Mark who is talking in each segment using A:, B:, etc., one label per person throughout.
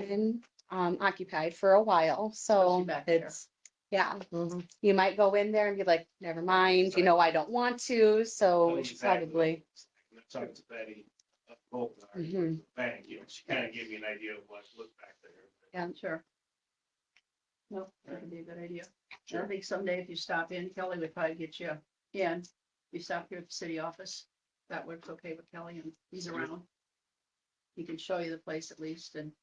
A: been um occupied for a while, so
B: back there.
A: it's. Yeah, you might go in there and be like, never mind, you know, I don't want to, so it's
C: Exactly.
A: probably,
C: And I talked to Betty, uh, both of our
A: Mhm.
C: bank, you know, she kind of gave me an idea of what looked back there.
A: Yeah.
B: Sure. No, that would be a good idea. I
C: Sure.
B: think someday if you stop in, Kelly would probably get you in. You stop here at the city office. That works okay with Kelly and he's
C: Yeah.
B: around. He can show you the place at least and,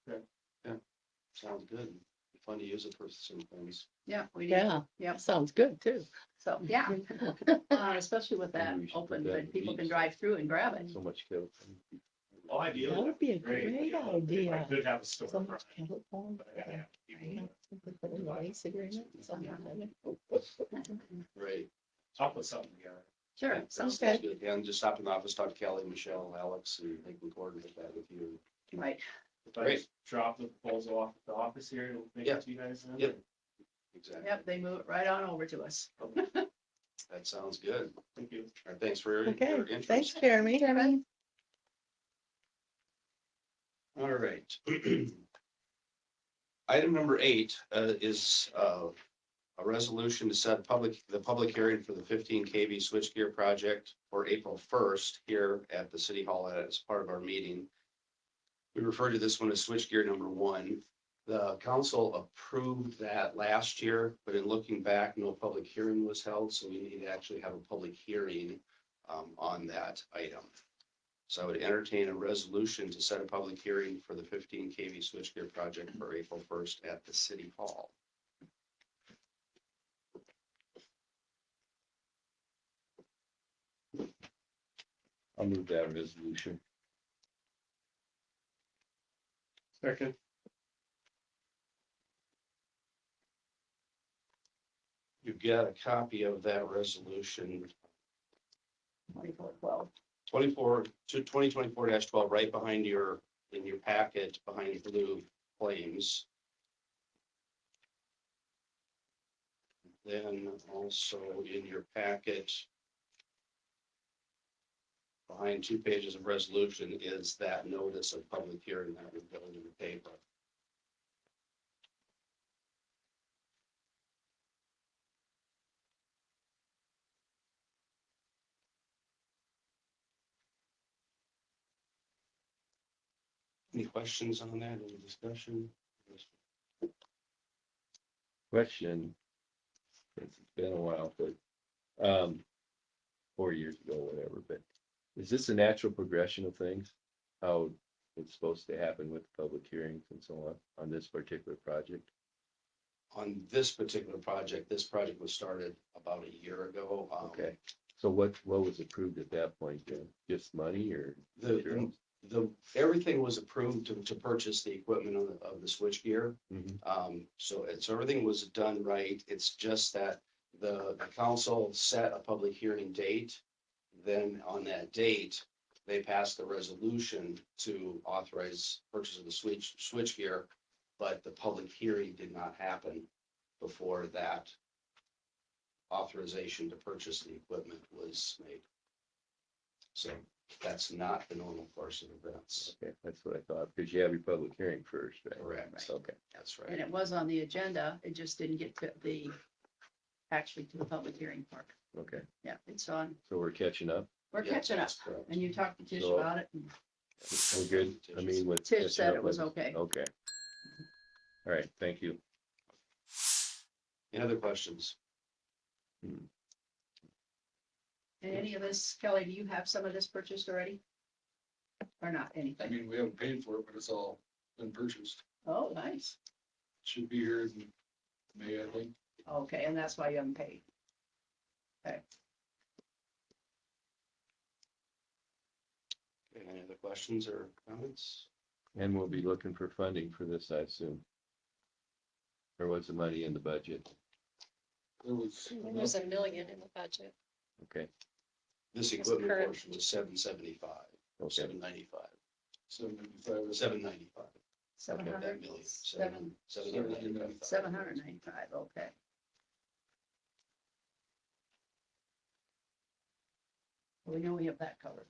D: Sounds good. Fun to use it for some things.
B: yeah, we need,
E: Yeah,
B: Yep.
E: sounds good too.
B: so, yeah. Uh, Especially with that
D: Maybe we should put
B: open,
D: that in
B: but
D: the
B: people can
D: deeds.
B: drive through and grab it.
D: So much kill.
C: Oh, I do.
E: That would be a great
C: you know, if I
E: idea.
C: could have a
E: So much
C: storefront.
E: telephone.
C: but I gotta have
E: Yeah,
C: people-
E: something for the lease agreement, something like that.
D: Right.
C: I'll put something together.
B: Sure, sounds
D: Sounds good.
B: good.
D: Yeah, and just stop in the office, talk to Kelly, Michelle, Alex, and they can coordinate that with you.
B: Right.
C: If I
D: Great.
C: just drop the proposal off at the office here, it'll make
D: Yeah.
C: it to you guys. then?
D: Yep. Exactly.
B: Yep, they move it right on over to us.
D: That sounds good.
C: Thank you.
D: All right, Thanks for your your
E: Okay,
D: interest.
E: thanks, Jeremy.
A: Jeremy?
D: All right. Item number eight uh, is uh, a resolution to set public, the public hearing for the fifteen KV switchgear project for April first here at the city hall as part of our meeting. We refer to this one as switchgear number one. The council approved that last year, but in looking back, no public hearing was held, so we need to actually have a public hearing um, on that item. So I would entertain a resolution to set a public hearing for the fifteen KV switchgear project for April first at the city hall.
F: I'll move that resolution.
C: Second.
D: You've got a copy of that resolution
B: Twenty-four twelve.
D: twenty-four, to twenty twenty-four twelve, right behind your, in your packet, behind blue flames. Then also in your packet, behind two pages of resolution is that notice of public hearing that we go into the paper. Any questions on that, any discussion?
F: Question. since It's been a while, but, um, four years ago, whatever, but is this a natural progression of things? How it's supposed to happen with public hearings and so on, on this particular project?
D: On this particular project, this project was started about a year ago. Um,
F: Okay, so what, what was approved at that point then? Just money or?
D: The, the, everything was approved to, to purchase the equipment of, the- of the switchgear.
F: Mhm.
D: Um, so it's, everything was done right. It's just that the the council set a public hearing date. Then on that date, they passed the resolution to authorize purchase of the switch, switchgear. But the public hearing did not happen before that authorization to purchase the equipment was made. So that's not the normal course of events.
F: Okay, that's what I thought, because you have your public hearing first, right?
D: Correct.
F: Okay,
D: That's
B: And
D: right.
B: it was on the agenda, it just didn't get to the, actually to the public hearing part.
F: okay,
B: Yeah, it's on,
F: so we're catching up.
B: we're
D: Yeah,
B: catching up.
D: that's correct.
B: And you talked to Tish
F: So-
B: about it, and
F: We're good, I mean, with. catching
B: Tish said
F: up
B: it was
F: with-
B: okay.
F: Okay. All right, thank you.
D: Any other questions?
B: And any of this, Kelly, do you have some of this purchased already? Or not,
G: I
B: anything?
G: mean, we haven't paid for it, but it's all been purchased.
B: Oh, nice.
G: Should be here in May, I think.
B: Okay, and that's why you haven't paid.
D: Any other questions or comments?
F: And we'll be looking for funding for this, I assume. There was the money in the budget,
G: There was.
B: Mm,
E: Mm-hmm. There's a million in the budget.
F: okay,
D: This
E: That's
D: equipment
E: correct.
D: portion was seven seventy-five,
F: okay,
D: seven ninety-five,
G: Seventy-five.
D: seven ninety-five,
B: Seven
D: that
B: hundred,
D: million,
B: seven,
D: seven, seven hundred ninety-five.
B: seven hundred and ninety-five, okay. We know we have that covered.